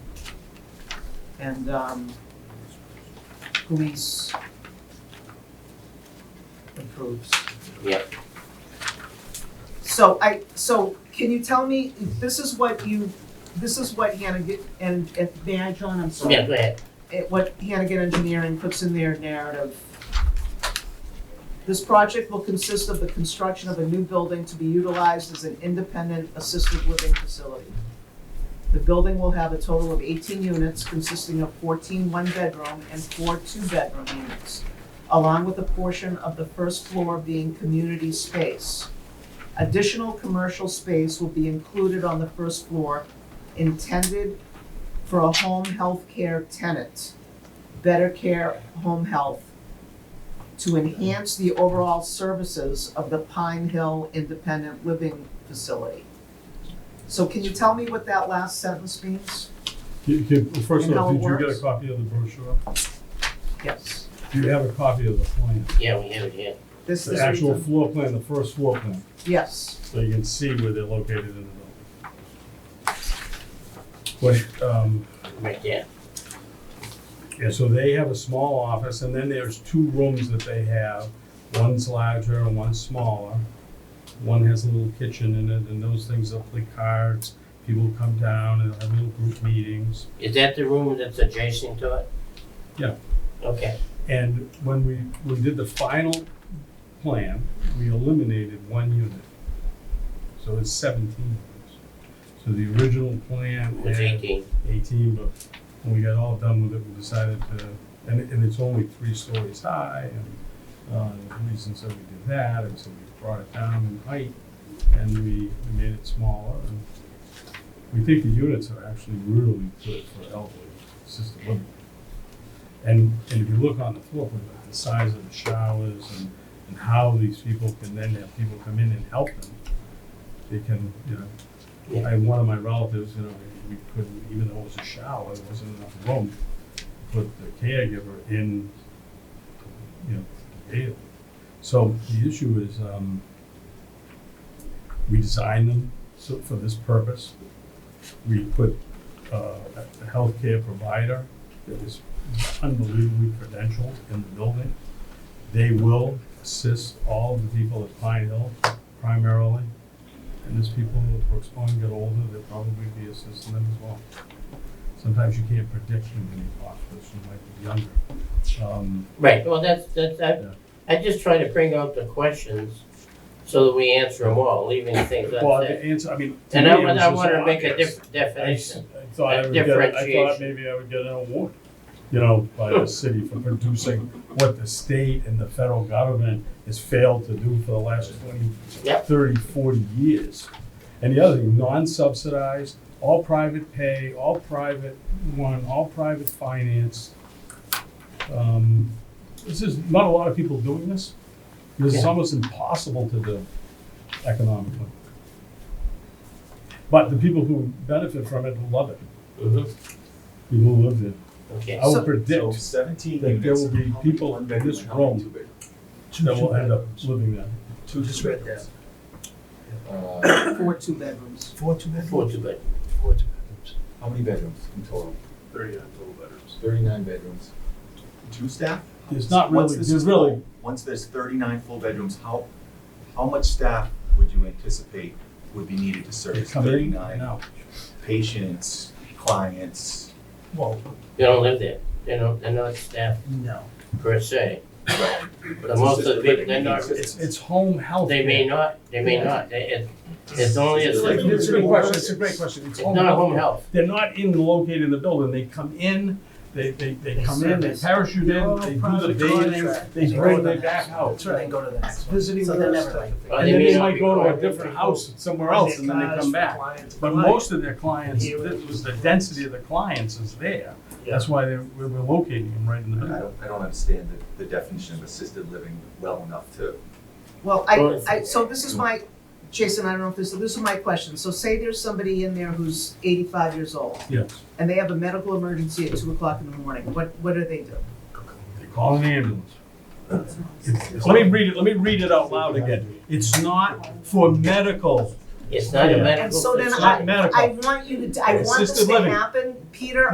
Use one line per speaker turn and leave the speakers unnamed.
and, um, police improves.
Yep.
So I, so can you tell me, this is what you, this is what Hannigan, and, and, may I, John, I'm sorry?
Yeah, go ahead.
it- what Hannigan Engineering puts in their narrative. This project will consist of the construction of a new building to be utilized as an independent assisted living facility. The building will have a total of eighteen units consisting of 14 one one-bedroom and four two-bedroom units, along with a portion of the first floor being community space. Additional commercial space will be included on the first floor intended for a home health care tenant, Better Care Home Health, to enhance the overall services of the Pine Hill Independent Living Facility. So can you tell me what that last sentence means?
You- you- well, First
And how
off,
it
did you get a
works?
copy of the brochure?
Yes.
Do you have a copy of the plan?
Yeah, we have it here.
This is.
The actual floor plan, the first floor plan,
Yes,
so you can see where they're located in the building. But, um,
Right there.
yeah, so they have a small office, and then there's two rooms that they have. One's larger and one's smaller. One has a little kitchen in it, and those things, they'll play cards, people come down and have little group meetings.
Is that the room that's adjacent to it?
Yeah.
Okay,
And when we, we did the final plan, we eliminated one unit. So it's seventeen units. So the original plan
it was
had
eighteen.
eighteen, but when we got all done with it, we decided to, and, and it's only three stories high, and, uh, the reasons that we did that, and so we brought it down in height, and we we made it smaller, and we think the units are actually really good for elderly assisted living. And, and if you look on the floor plan, like the size of the showers and, and how these people can then have people come in and help them, they can, you know,
Yeah.
I, one of my relatives, you know, we couldn't, even though it was a shower, there wasn't enough room to put the caregiver in, you know, daily. So the issue is, um, we designed them so, for this purpose. We put, uh, a healthcare provider that is unbelievably credentialed in the building. They will assist all the people at Pine Hill primarily. And as people with Brooks Pond get older, they'll probably be assisting them as well. Sometimes you can't predict when you talk, person might be younger. Um,
Right, well, that's, that's,
Yeah.
I, I just try to bring out the questions so that we answer them all, leaving things
Well, the
unsaid.
answer, I mean. to
And I,
me, it
wa-
was
I
just
wanna make a
obvious.
different
I s-
definition.
I thought I would get, I thought
Differentiation.
maybe I would get an award, you know, by the city for producing what the state and the federal government has failed to do for the last twenty,
Yep.
thirty, forty years. And the other thing, non-subsidized, all private pay, all private one, all private finance. Um, This is, not a lot of people doing this, because it's
Yeah.
almost impossible to do economically. But the people who benefit from it love it,
Mhm.
people who live there.
Okay,
I
So-
would
So
predict
seventeen
that there
units.
will be
How many
people in
one-bedroom
this
and how many
room.
two-bedroom?
that will end up living there.
Two
Just read that.
Uh,
four two bedrooms.
Four two
four
bedrooms?
too bad.
Four two bedrooms.
How many bedrooms in total?
Thirty-nine total bedrooms.
Thirty-nine bedrooms. Two staff?
There's not
Once
really,
this
there's
is
really,
full- Once there's thirty-nine full bedrooms, how, how much staff would you anticipate would be needed to
they
service
come in and
thirty-nine
out.
patients, clients?
Well,
They don't live there. They don't, they're not staff
no.
per se. But
It's
most of the
assisted
people,
living,
they're not-
It's, it's home health.
They may not, they may not. They, it, it's only a,
Like,
It's a
it's
great question, it's a great question. It's home
not
health
home
care.
health.
They're not in, located in the building, they come in, they, they, they
They
come in, they
service.
parachute
They're
in,
all
they do the
private
bathing,
contract.
they
They
bring
go
they
to
back
the-
out.
So then go to the next one.
Visiting
So they're
nurse
never
type.
like.
Well,
And
they
then
may
they
not
might
be
go to a
qualified.
different house somewhere else and then they come back. But most of their clients, it was the density of the clients is there. That's why they're, we're we're locating them right in the
I
middle.
don't, I don't understand the, the definition of assisted living well enough to
Well, I, I, so this is my, Jason, I don't know if this, this is my question. So say there's somebody in there who's eighty-five years old.
Yes,
and they have a medical emergency at two o'clock in the morning, what, what do they do?
they call an ambulance. It's- Let me read it, let me read it out loud again. It's not for medical,
It's not a
Yeah.
medical.
And so then
it's
it's
not-
not
I
medical.
want you to, I want this
Assisted
to
living.
happen, Peter,